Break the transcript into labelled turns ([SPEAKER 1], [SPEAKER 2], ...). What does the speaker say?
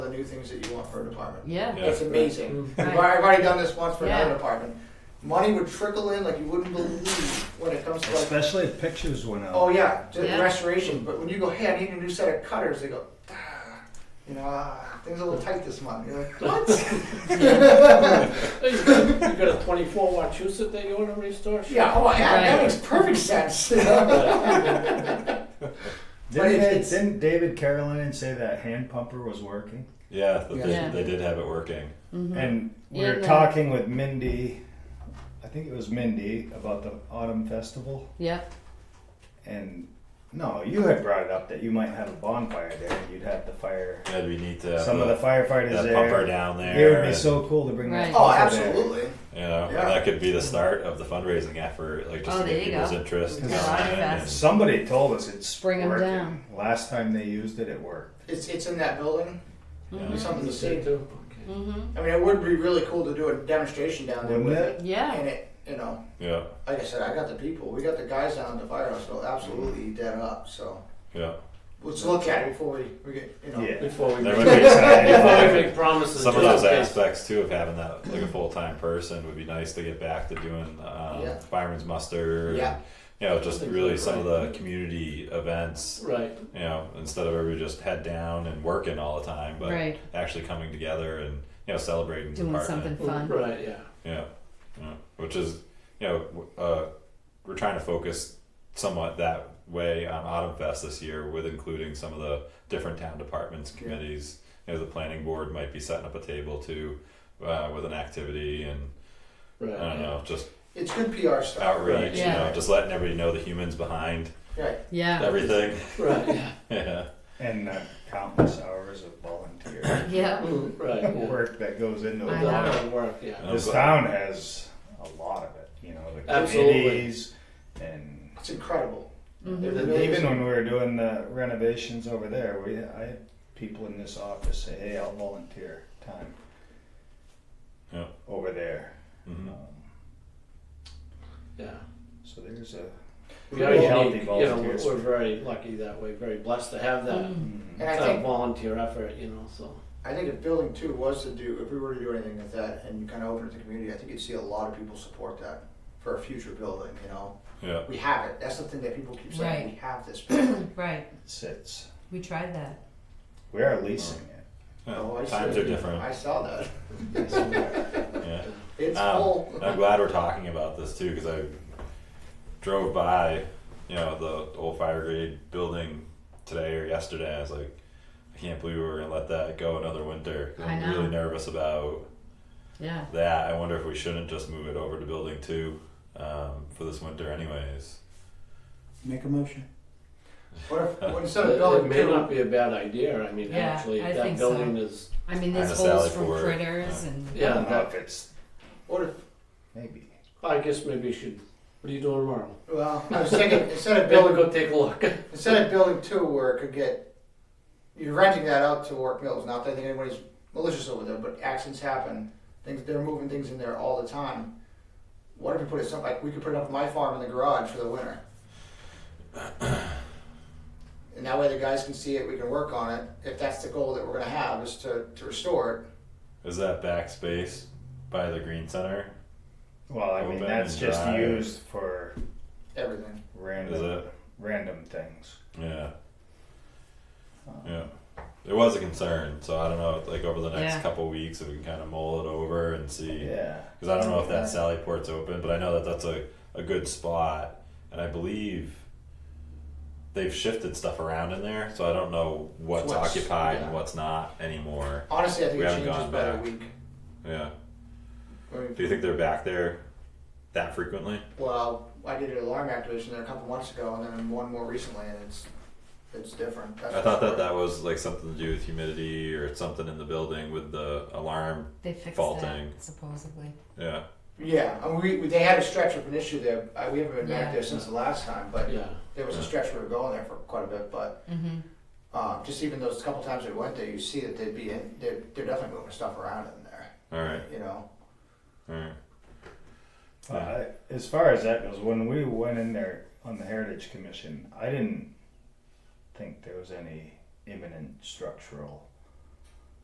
[SPEAKER 1] do things that you want for a department.
[SPEAKER 2] Yeah.
[SPEAKER 3] Yeah.
[SPEAKER 1] It's amazing.
[SPEAKER 2] Mm. Right.
[SPEAKER 1] I've already- I've already done this once for
[SPEAKER 2] Yeah.
[SPEAKER 1] another department. Money would trickle in like you wouldn't believe when it comes to like,
[SPEAKER 4] Especially if pictures went out.
[SPEAKER 1] oh yeah, to
[SPEAKER 2] Yeah.
[SPEAKER 1] restoration. But when you go, hey, I need a new set of cutters, they go, ah, you know, ah, things are a little tight this month. You're like, what?
[SPEAKER 5] Hey, You got- you got a twenty-four Wachusett that you wanna restore? Sure.
[SPEAKER 1] yeah, oh, that, that
[SPEAKER 2] Right.
[SPEAKER 1] makes perfect sense. Oh, yeah,
[SPEAKER 4] Didn't,
[SPEAKER 1] But
[SPEAKER 4] they,
[SPEAKER 1] it's-
[SPEAKER 4] didn't David Carolyn say that hand pumper was working?
[SPEAKER 3] Yeah, that They,
[SPEAKER 2] Yeah.
[SPEAKER 3] they did have it working.
[SPEAKER 4] And we
[SPEAKER 2] Mm-hmm. Yeah,
[SPEAKER 4] were
[SPEAKER 2] the-
[SPEAKER 4] talking with Mindy, I think it was Mindy, about the autumn festival.
[SPEAKER 2] Yeah.
[SPEAKER 4] And no, you had brought it up that you might have a bonfire there and you'd have the fire,
[SPEAKER 3] That'd be neat to have
[SPEAKER 4] some of the firefighters
[SPEAKER 3] that
[SPEAKER 4] there.
[SPEAKER 3] pumper down
[SPEAKER 4] It
[SPEAKER 3] there.
[SPEAKER 4] would be
[SPEAKER 3] and,
[SPEAKER 4] so cool to bring
[SPEAKER 2] Right.
[SPEAKER 4] that.
[SPEAKER 1] Oh,
[SPEAKER 4] pumper there.
[SPEAKER 1] absolutely.
[SPEAKER 3] you know,
[SPEAKER 1] Yeah.
[SPEAKER 3] that could be the start of the fundraising effort, like just
[SPEAKER 2] Oh,
[SPEAKER 3] to
[SPEAKER 2] there
[SPEAKER 3] get
[SPEAKER 2] you
[SPEAKER 3] people's
[SPEAKER 2] go.
[SPEAKER 3] interest.
[SPEAKER 2] Yeah.
[SPEAKER 3] going and-
[SPEAKER 2] Fest.
[SPEAKER 4] Somebody told us it's
[SPEAKER 2] Bring 'em
[SPEAKER 4] working.
[SPEAKER 2] down.
[SPEAKER 4] Last time they used it, it worked.
[SPEAKER 1] It's it's in that building.
[SPEAKER 3] yeah.
[SPEAKER 1] Something to see.
[SPEAKER 5] Say too. Okay.
[SPEAKER 2] Mm-hmm.
[SPEAKER 1] I mean, it would be really cool to do a demonstration down there with
[SPEAKER 4] Wouldn't
[SPEAKER 1] it.
[SPEAKER 2] Yeah.
[SPEAKER 1] And it, you know,
[SPEAKER 3] yeah,
[SPEAKER 1] like I said, I got the people. We got the guys down at the firehouse. They'll absolutely eat that up. So
[SPEAKER 3] yeah.
[SPEAKER 1] let's look at it Mm-hmm. before we, we get, you know.
[SPEAKER 4] Yeah. uh,
[SPEAKER 5] Before we.
[SPEAKER 3] There
[SPEAKER 5] make-
[SPEAKER 3] would be
[SPEAKER 5] Before we
[SPEAKER 3] exciting.
[SPEAKER 5] make promises.
[SPEAKER 3] Some of
[SPEAKER 5] just
[SPEAKER 3] those
[SPEAKER 5] in case.
[SPEAKER 3] aspects too of having that like a full time person would be nice to get back to doing um,
[SPEAKER 1] Yeah.
[SPEAKER 3] fireman's muster.
[SPEAKER 1] Yeah.
[SPEAKER 3] And, you know, just
[SPEAKER 5] Things
[SPEAKER 3] really
[SPEAKER 5] like
[SPEAKER 3] some of
[SPEAKER 5] that.
[SPEAKER 3] the community events.
[SPEAKER 5] Right.
[SPEAKER 3] You know, instead of everybody just head down and working all the time, but
[SPEAKER 2] Right.
[SPEAKER 3] actually coming together and you know celebrating the
[SPEAKER 2] Doing
[SPEAKER 3] department.
[SPEAKER 2] something fun.
[SPEAKER 5] Right, yeah.
[SPEAKER 3] Yeah, yeah. Which is, you know, w- uh, we're trying to focus somewhat that way on Autumn Fest this year with including some of the different town departments,
[SPEAKER 1] Yeah.
[SPEAKER 3] committees. You know, the planning board might be setting up a table too uh, with an activity and
[SPEAKER 5] Right.
[SPEAKER 3] I don't know, just
[SPEAKER 1] It's good PR stuff.
[SPEAKER 3] outreach,
[SPEAKER 2] Yeah.
[SPEAKER 3] you know, just letting everybody know the humans behind
[SPEAKER 1] Right.
[SPEAKER 2] Yeah.
[SPEAKER 3] everything.
[SPEAKER 5] Right, yeah.
[SPEAKER 3] yeah.
[SPEAKER 4] And uh, countless hours of volunteer
[SPEAKER 2] Yeah.
[SPEAKER 5] Mm, Right, yeah.
[SPEAKER 4] work that goes into
[SPEAKER 2] I
[SPEAKER 5] A
[SPEAKER 4] it.
[SPEAKER 5] lot of work, yeah.
[SPEAKER 3] I'm
[SPEAKER 4] This
[SPEAKER 3] glad-
[SPEAKER 4] town has a lot of it, you know, the
[SPEAKER 5] Absolutely.
[SPEAKER 4] committees and
[SPEAKER 1] It's incredible.
[SPEAKER 2] Mhm.
[SPEAKER 1] It really is.
[SPEAKER 4] even when we were doing the renovations over there, we I had people in this office say, "Hey, I'll volunteer time."
[SPEAKER 3] Yeah.
[SPEAKER 4] Over there,
[SPEAKER 3] Mhm.
[SPEAKER 4] um,
[SPEAKER 5] Yeah.
[SPEAKER 4] so there's a
[SPEAKER 5] We are
[SPEAKER 4] pretty healthy
[SPEAKER 5] unique, you know,
[SPEAKER 4] volunteer.
[SPEAKER 5] we're we're very lucky that way, very blessed to have that
[SPEAKER 2] Mhm.
[SPEAKER 4] Mhm.
[SPEAKER 1] And I
[SPEAKER 5] kind of
[SPEAKER 1] think
[SPEAKER 5] volunteer effort, you know, so.
[SPEAKER 1] I think if building two was to do, if we were to do anything with that, and you kind of open it to the community, I think you'd see a lot of people support that for a future building. You know,
[SPEAKER 3] Yeah.
[SPEAKER 1] we have it. That's the thing that people keep saying.
[SPEAKER 2] Right.
[SPEAKER 1] We have this. building.
[SPEAKER 2] Right.
[SPEAKER 4] It sits.
[SPEAKER 2] We tried that.
[SPEAKER 4] We are leasing it.
[SPEAKER 3] Yeah.
[SPEAKER 1] Oh, I see.
[SPEAKER 3] Times are different.
[SPEAKER 1] I saw that.
[SPEAKER 3] Yeah.
[SPEAKER 1] It's
[SPEAKER 3] Um,
[SPEAKER 1] full.
[SPEAKER 3] and I'm glad we're talking about this too because I drove by, you know, the old fire grade building today or yesterday. I was like, I can't believe we were gonna let that go another winter. 'cause
[SPEAKER 2] I
[SPEAKER 3] I'm
[SPEAKER 2] know.
[SPEAKER 3] really nervous about
[SPEAKER 2] Yeah.
[SPEAKER 3] that. I wonder if we shouldn't just move it over to building two um, for this winter, anyways.
[SPEAKER 6] Make a motion.
[SPEAKER 1] What if what instead of
[SPEAKER 5] It it
[SPEAKER 1] building
[SPEAKER 5] may
[SPEAKER 1] two?
[SPEAKER 5] not be a bad idea, I mean,
[SPEAKER 2] Yeah,
[SPEAKER 5] actually,
[SPEAKER 2] I
[SPEAKER 5] that
[SPEAKER 2] think so.
[SPEAKER 5] building is,
[SPEAKER 2] I mean,
[SPEAKER 3] Kinda
[SPEAKER 2] there's
[SPEAKER 3] Sally
[SPEAKER 2] holes from
[SPEAKER 3] Ford.
[SPEAKER 2] critters and.
[SPEAKER 4] I
[SPEAKER 5] yeah,
[SPEAKER 4] don't know if
[SPEAKER 5] that,
[SPEAKER 4] it's
[SPEAKER 1] What if
[SPEAKER 4] maybe.
[SPEAKER 5] I guess maybe you should, what are you doing tomorrow?
[SPEAKER 1] Well, I was thinking instead of
[SPEAKER 5] Bill,
[SPEAKER 1] building
[SPEAKER 5] go take a look.
[SPEAKER 1] instead of building two where it could get you're renting that out to work mills. Not that I think anybody's malicious over there, but accidents happen. Things they're moving things in there all the time. What if we put it something like we could put it up my farm in the garage for the winter? And that way the guys can see it, we can work on it. If that's the goal that we're gonna have is to, to restore
[SPEAKER 3] Is that back space by the green center?
[SPEAKER 4] Well, I mean,
[SPEAKER 3] Open
[SPEAKER 4] that's
[SPEAKER 3] and
[SPEAKER 4] just
[SPEAKER 3] dry.
[SPEAKER 4] used for
[SPEAKER 1] it, everything.
[SPEAKER 3] Is
[SPEAKER 4] random
[SPEAKER 3] it?
[SPEAKER 4] random things.
[SPEAKER 3] Yeah,
[SPEAKER 4] Um,
[SPEAKER 3] yeah. It was a concern, so I don't know. Like over the next
[SPEAKER 2] Yeah.
[SPEAKER 3] couple weeks, if we can kind of mull it over and see.
[SPEAKER 4] Yeah.
[SPEAKER 3] Because I don't know if
[SPEAKER 4] Yeah.
[SPEAKER 3] that Sally Port's open, but I know that that's a, a good spot. And I believe they've shifted stuff around in there, so I don't know what's,
[SPEAKER 1] What's-
[SPEAKER 3] occupied
[SPEAKER 1] yeah.
[SPEAKER 3] and what's not anymore.
[SPEAKER 1] Honestly I think
[SPEAKER 3] We
[SPEAKER 1] it
[SPEAKER 3] haven't
[SPEAKER 1] changes
[SPEAKER 3] gone
[SPEAKER 1] by a
[SPEAKER 3] back.
[SPEAKER 1] week.
[SPEAKER 3] Yeah.
[SPEAKER 1] I mean,
[SPEAKER 3] Do you think they're back there that frequently?
[SPEAKER 1] Well, I did an alarm activation there a couple months ago, and then one more recently, and it's it's different. That's
[SPEAKER 3] I thought
[SPEAKER 1] for
[SPEAKER 3] that
[SPEAKER 1] sure.
[SPEAKER 3] that was like something to do with humidity or something in the building with the alarm.
[SPEAKER 2] They fixed
[SPEAKER 3] Faulting.
[SPEAKER 2] that supposedly.
[SPEAKER 3] Yeah.
[SPEAKER 1] Yeah, I mean, we, we- they had a stretch of an issue there. Uh, we haven't been
[SPEAKER 2] Yeah.
[SPEAKER 1] back there since the last time, but
[SPEAKER 5] Yeah,
[SPEAKER 1] there was a stretch we were going there for quite a bit. But
[SPEAKER 2] Mm-hmm.
[SPEAKER 1] um, just even those couple times we went there, you see that they'd be in. They're, they're definitely moving stuff around in there.
[SPEAKER 3] All right.
[SPEAKER 1] You know.
[SPEAKER 3] All right.
[SPEAKER 4] Uh, as far as that goes, when we went in there on the Heritage Commission, I didn't think there was any imminent structural